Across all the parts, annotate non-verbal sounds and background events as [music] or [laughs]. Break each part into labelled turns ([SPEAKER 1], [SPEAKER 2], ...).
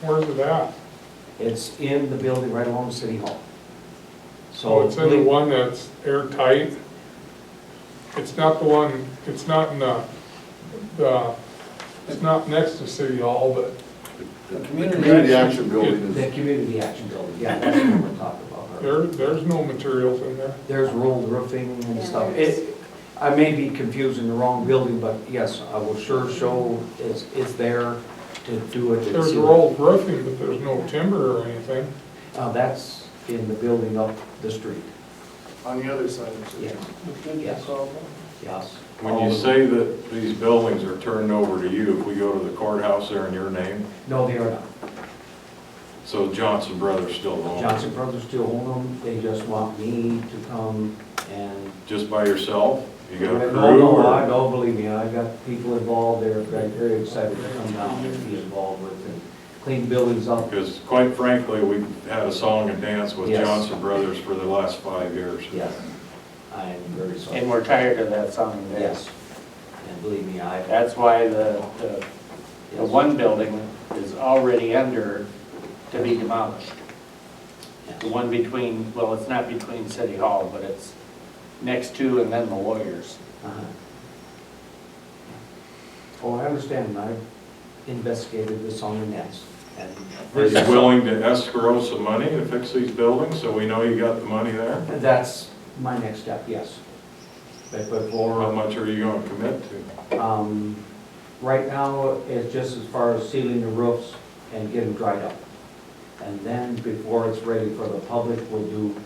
[SPEAKER 1] Where's it at?
[SPEAKER 2] It's in the building right along City Hall. So
[SPEAKER 1] Oh, it's in the one that's airtight? It's not the one, it's not in the, the, it's not next to City Hall, but
[SPEAKER 3] The
[SPEAKER 4] Community Action Building
[SPEAKER 2] The
[SPEAKER 4] is,
[SPEAKER 2] community action building, yeah, that's what we're talking about. right?
[SPEAKER 1] there, there's no materials in there.
[SPEAKER 2] There's rolled roofing and
[SPEAKER 5] Yeah,
[SPEAKER 2] stuff.
[SPEAKER 5] there is.
[SPEAKER 2] It, I may be confusing the wrong building, but yes, I will sure show it's, it's there to do it. and
[SPEAKER 1] There's
[SPEAKER 2] see what-
[SPEAKER 1] rolled roofing, but there's no timber or anything.
[SPEAKER 2] Uh, that's in the building up the street,
[SPEAKER 4] on the other side of
[SPEAKER 2] yeah,
[SPEAKER 4] the
[SPEAKER 2] yes, yes.
[SPEAKER 6] When you say that these buildings are turned over to you, if we go to the courthouse there in your name,
[SPEAKER 2] No, they are not.
[SPEAKER 6] so Johnson Brothers still own it?
[SPEAKER 2] Johnson Brothers still own them, they just want me to come and.
[SPEAKER 6] Just by yourself? You got
[SPEAKER 2] No,
[SPEAKER 6] a crew
[SPEAKER 2] no, I,
[SPEAKER 6] or?
[SPEAKER 2] no, believe me, I got people involved there, very, very excited to come down and be involved with and clean buildings up.
[SPEAKER 6] Because quite frankly, we've had a song and dance with
[SPEAKER 2] Yes.
[SPEAKER 6] Johnson Brothers for the last five years.
[SPEAKER 2] Yes, I am very
[SPEAKER 3] And
[SPEAKER 2] sorry.
[SPEAKER 3] we're tired of that song and dance.
[SPEAKER 2] Yes, and believe me, I.
[SPEAKER 3] That's why the, the, the
[SPEAKER 2] yes,
[SPEAKER 3] one building is already under to be demolished.
[SPEAKER 2] yes.
[SPEAKER 3] The one between, well, it's not between City Hall, but it's next to and then the lawyers.
[SPEAKER 2] Uh-huh. Oh, I understand, I investigated this on the nets, and.
[SPEAKER 6] Are you willing to escrow some money to fix these buildings so we know you got the money there?
[SPEAKER 2] That's my next step, yes. But
[SPEAKER 6] How
[SPEAKER 2] before,
[SPEAKER 6] much are you going to commit to?
[SPEAKER 2] um, right now, it's just as far as sealing the roofs and getting dried up. And then before it's ready for the public, we'll do,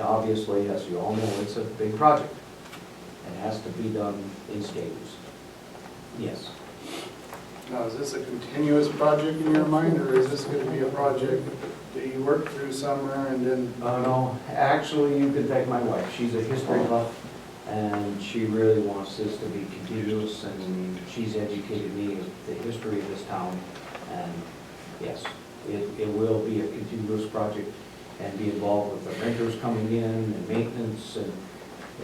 [SPEAKER 2] obviously, as you all know, it's a big project. It has to be done in stages. Yes.
[SPEAKER 4] street. Now, is this a continuous project in your mind, or is this gonna be a project that you work through summer and then?
[SPEAKER 2] Oh, no, actually, you can thank my wife, she's a history buff, and she really wants this to be continuous, and she's educated me of the history of this town, and yes, it, it will be a continuous project, and be involved with the renters coming in, and maintenance, and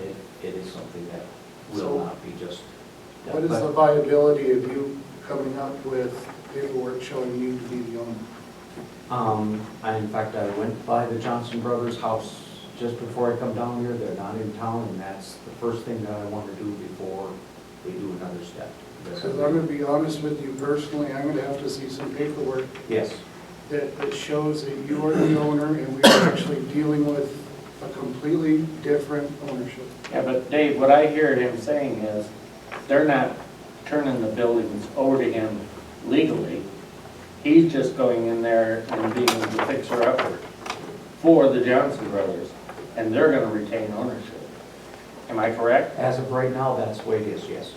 [SPEAKER 2] it, it is something that will
[SPEAKER 4] So-
[SPEAKER 2] not be just.
[SPEAKER 4] What is the
[SPEAKER 2] But
[SPEAKER 4] viability of you coming up with paperwork showing you to be the owner?
[SPEAKER 2] Um, I, in fact, I went by the Johnson Brothers house just before I come down here, they're not in town, and that's the first thing that I want to do before we do another step.
[SPEAKER 4] Because I'm gonna be honest with you personally, I'm gonna have to see some paperwork
[SPEAKER 2] Yes,
[SPEAKER 4] that, that shows that you are the owner and we are actually dealing with a completely different ownership.
[SPEAKER 3] Yeah, but Dave, what I hear him saying is, they're not turning the buildings over to him legally. He's just going in there and being the fixer-upper for the Johnson Brothers, and they're gonna retain ownership. Am I correct?
[SPEAKER 2] as of right now, that's the way it is, yes.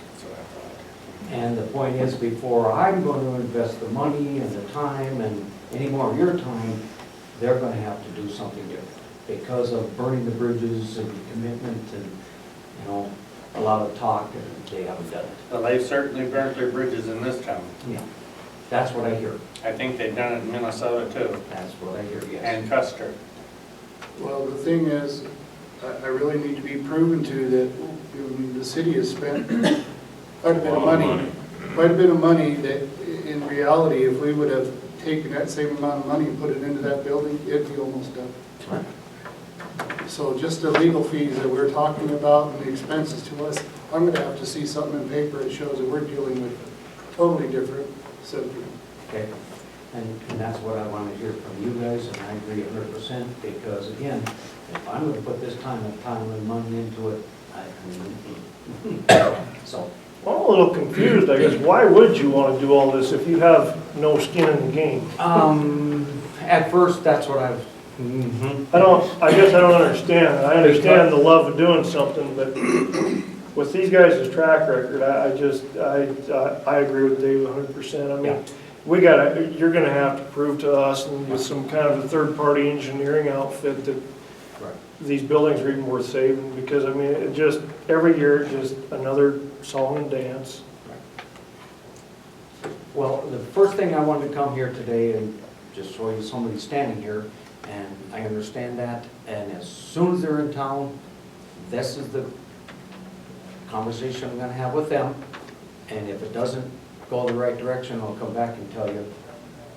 [SPEAKER 2] And the point is, before I'm going to invest the money and the time and any more of your time, they're going to have to do something different because of burning the bridges and commitment and, you know, a lot of talk, and they haven't done it.
[SPEAKER 3] Well, they've certainly burnt their bridges in this town.
[SPEAKER 2] Yeah, that's what I hear.
[SPEAKER 3] I think they've done it in Minnesota too,
[SPEAKER 2] That's what I hear, yes.
[SPEAKER 3] and Custer.
[SPEAKER 4] Well, the thing is, I, I really need to be proven to that you know, the city has spent quite a bit
[SPEAKER 6] A
[SPEAKER 4] of
[SPEAKER 6] lot of
[SPEAKER 4] money,
[SPEAKER 6] money.
[SPEAKER 4] quite a bit of money that i- in reality, if we would have taken that same amount of money and put it into that building, it'd be almost done. So just the legal fees that we're talking about and the expenses to us, I'm gonna have to see something in paper that shows that we're dealing with a totally different set of people.
[SPEAKER 2] Okay, and, and that's what I want to hear from you guys, and I agree a hundred percent, because again, if I'm gonna put this time and time and money into it, I, [laughs] so,
[SPEAKER 7] Well, I'm a little confused, I guess. Why would you want to do all this if you have no skin in the game?
[SPEAKER 2] um, at first, that's what I've. Mhm.
[SPEAKER 7] I don't, I guess I don't understand. I understand the love of doing something, but with these guys' track record, I, I just, I, I- I agree with Dave hundred percent. I
[SPEAKER 2] Yeah.
[SPEAKER 7] mean, we gotta, you're gonna have to prove to us and with some kind of a third-party engineering outfit that
[SPEAKER 2] Right.
[SPEAKER 7] these buildings are even worth saving, because I mean, it just, every year, just another song and dance.
[SPEAKER 2] Well, the first thing I wanted to come here today and just show you somebody standing here, and I understand that, and as soon as they're in town, this is the conversation I'm gonna have with them, and if it doesn't go the right direction, I'll come back and tell you,